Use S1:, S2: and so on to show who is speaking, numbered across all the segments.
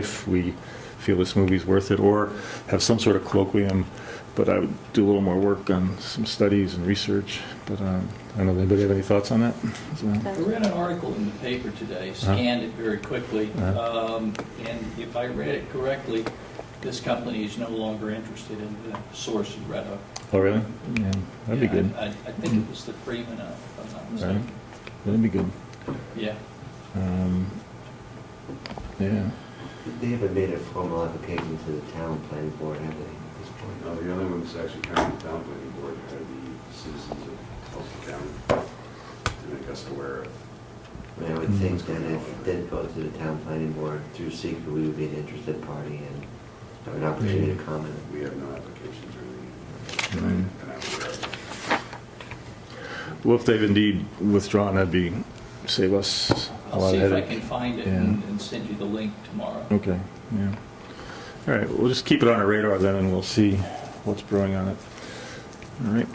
S1: if we feel this movie's worth it, or have some sort of colloquium, but I would do a little more work on some studies and research, but um, I don't know, anybody have any thoughts on that? So-
S2: I read an article in the paper today, scanned it very quickly,
S1: uh,
S2: um, and if I read it correctly, this company is no longer interested in the source of Red Hook.
S1: Oh, really? Yeah, That'd be
S2: Yeah, I-
S1: good,
S2: I I think it was the Freeman, uh, if I'm not
S1: right?
S2: mistaken.
S1: That'd be good.
S2: Yeah.
S1: Um, Yeah,
S3: They haven't made a formal application to the town planning board, have they, at this
S4: Now,
S3: point?
S4: the only ones that's actually coming to town planning board are the citizens of Tulsa County to make us aware of.
S3: I mean, I would think that if it did go to the town planning board through secret, we would be an interested party and have an opportunity to comment.
S4: We have no applications or anything.
S1: Mhm.
S4: And I'm aware of it.
S1: well, if they've indeed withdrawn, that'd be, save us a
S2: I'll
S1: lot
S2: see
S1: of
S2: if I
S1: headache.
S2: can find it
S1: Yeah.
S2: and and send you the link tomorrow.
S1: Okay, yeah. All right, we'll just keep it on our radar then, and we'll see what's brewing on it. All right,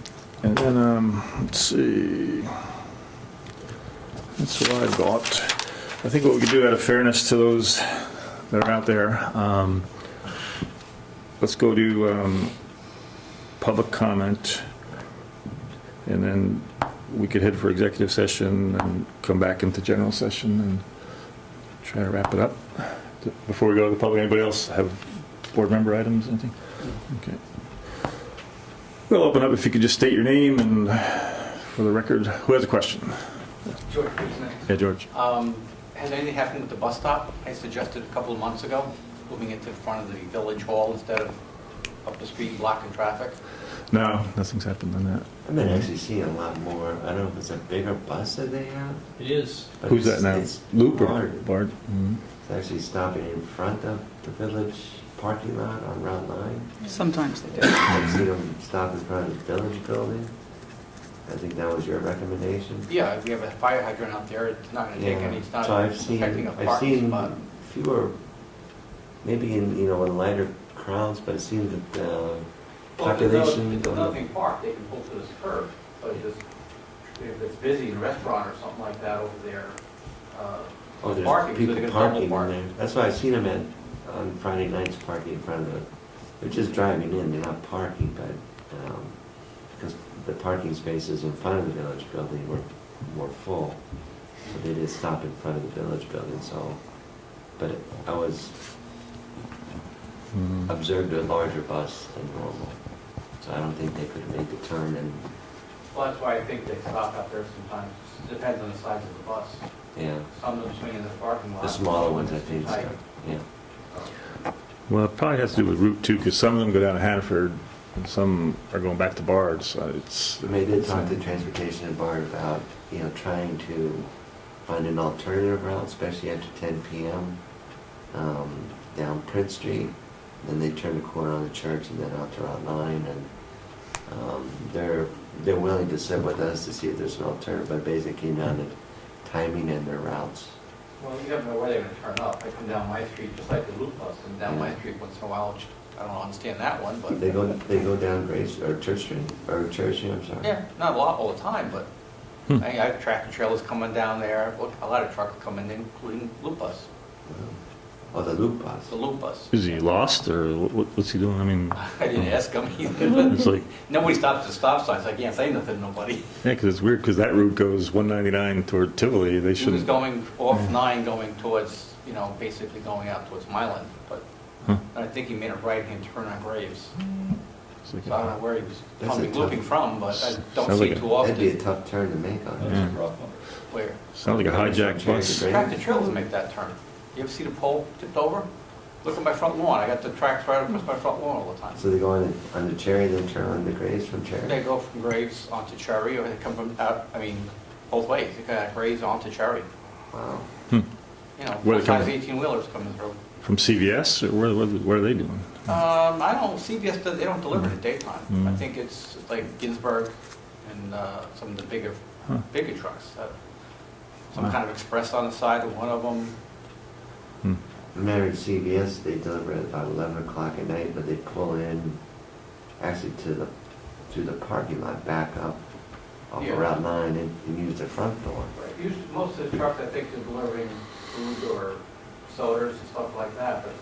S1: and then, um, let's see. That's what I've got. I think what we could do out of fairness to those that are out there, um, let's go to, um, public comment. And then we could head for executive session and come back into general session and try to wrap it up. Before we go to the public, anybody else have board member items, anything? Okay. We'll open up if you could just state your name and for the record, who has a question?
S5: George, who's next?
S1: Yeah, George.
S5: Um, Has anything happened with the bus stop? I suggested a couple of months ago, moving it to the front of the village hall instead of up the street blocking traffic.
S1: No, nothing's happened on that.
S3: I've been actually seeing a lot more, I don't know if it's a bigger bus that they have.
S2: It is,
S3: but
S1: Who's that
S3: it's-
S1: now?
S3: It's
S1: Loop or
S3: Bard.
S1: Bard? Mhm.
S3: It's actually stopping in front of the village parking lot on Route 9.
S6: Sometimes they do.
S3: I've seen them stop in front of the village building. I think that was your recommendation.
S5: Yeah, we have a fire hydrant out there, it's not going to take
S3: Yeah,
S5: any, it's not
S3: so I've seen,
S5: affecting a
S3: I've
S5: parking
S3: seen
S5: spot.
S3: fewer, maybe in, you know, in lighter crowds, but it seems that the population.
S5: It's a nothing park, they can pull to this curb, but just, if it's busy, a restaurant or something like that over there, uh,
S3: Oh, there's
S5: parking, so
S3: people
S5: they're gonna double
S3: parking in
S5: park.
S3: there. That's why I've seen them at, on Friday nights, parking in front of the, they're just driving in, they're not parking, but, um, because the parking spaces in front of the village building were, were full. So they did stop in front of the village building, so, but I was
S1: Mhm.
S3: observed a larger bus than normal. So I don't think they could have made the turn and,
S5: Well, that's why I think they stop out there sometimes, depends on the size of the bus.
S3: yeah,
S5: Some of them swing in the parking lot.
S3: the smaller ones, I think,
S5: Right.
S3: so, yeah.
S1: Well, it probably has to do with Route 2, because some of them go down to Hanford, and some are going back to Bard, so it's...
S3: I mean, I did talk to Transportation and Bard about, you know, trying to find an alternative route, especially after ten PM, um, down Prince Street. Then they turn the corner on the church and then out to Route nine and, um, they're, they're willing to sit with us to see if there's an alternative, but basically none of timing and their routes.
S5: Well, you never know where they're gonna turn up. They come down my street, just like the loop bus, and down my street once in a while, which I don't understand that one, but.
S3: They go, they go down Grace, or Church Street, or Church Street, I'm sorry.
S5: Yeah, not a lot all the time, but
S1: Hmm.
S5: I, I have tractor trailers coming down there, Look, a lot of trucks coming in, including loop bus,
S3: Oh, the loop bus.
S5: It's the loop bus.
S1: Is he lost, or what- what's he doing? I mean,
S5: I didn't ask them either,
S1: it's
S5: but
S1: like,
S5: nobody stops at the stop signs, I can't say nothing to nobody.
S1: yeah, because it's weird, because that route goes 199 toward Tivoli, they
S5: She was
S1: shouldn't...
S5: going off nine, going towards, you know, basically going out towards Mylan, but
S1: Huh.
S5: and I think he made a right-hand turn on Graves.
S1: it's like-
S5: So I don't know where he was
S3: That's a
S5: coming,
S3: tough-
S5: looking from, but I don't
S1: Sounds
S5: see
S1: like
S5: it
S1: a-
S5: too
S3: That'd be a
S5: often
S3: tough turn to make
S2: uh,
S3: on
S1: Yeah.
S3: it.
S5: where.
S1: Sounds like a hijacked bus.
S5: Tractor trailers make that turn. You ever see the pole tipped over? Look at my front lawn, I got the tracks right across my front lawn all the time.
S3: So they go on, on the Cherry, then turn on the Grace from
S5: They
S3: Cherry?
S5: go from Graves onto Cherry, or they come from, out. I mean, both ways, they got Graves onto Cherry.
S3: Wow.
S1: Hmm.
S5: You know,
S1: Where they
S5: both sides
S1: coming?
S5: eighteen-wheelers coming through.
S1: From CVS, or where, where- where are they doing?
S5: Um, I don't, CVS, does- they don't deliver at daytime. I
S1: Mm.
S5: think it's like Ginsburg and uh, some of the bigger,
S1: Huh.
S5: bigger trucks. uh, Some
S1: Wow.
S5: kind of express on the side of one of them.
S1: Hmm.
S3: Remember at CVS, they deliver at about eleven o'clock at night, but they pull in actually to the, to the parking lot, back up off
S5: Yeah.
S3: of Route nine and, and use the front door.
S5: Most of the trucks, I think, are delivering food or sodas and stuff like that, but it's